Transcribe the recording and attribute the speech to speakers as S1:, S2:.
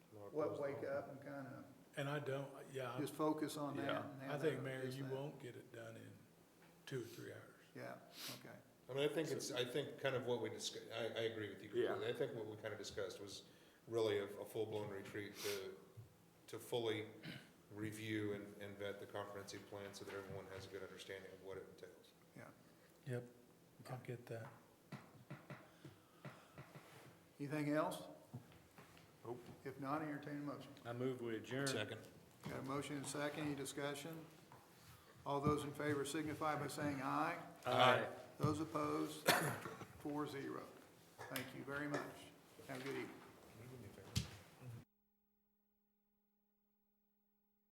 S1: what, wake up and kind of
S2: And I don't, yeah, I-
S1: just focus on that.
S3: Yeah.
S1: and
S2: I
S1: have
S2: think,
S1: that-
S2: Mayor,
S1: just
S2: you
S1: that.
S2: won't get it done in two or three hours.
S1: Yeah, okay.
S4: I mean, I think it's, I think kind of what we discussed, I, I agree with you
S3: Yeah.
S4: completely. I think what we kind of discussed was really a, a full-blown retreat to, to fully review and, and vet the comprehensive plan so that everyone has a good understanding of what it entails.
S2: Yep, I'll get that.
S1: Anything else?
S3: Nope.
S1: If not, entertain a motion.
S3: I move we adjourn.
S1: Got a motion and a second, any discussion? All those in favor signify by saying aye.
S3: Aye.
S1: Those opposed, four zero. Thank you very much. Have a good evening.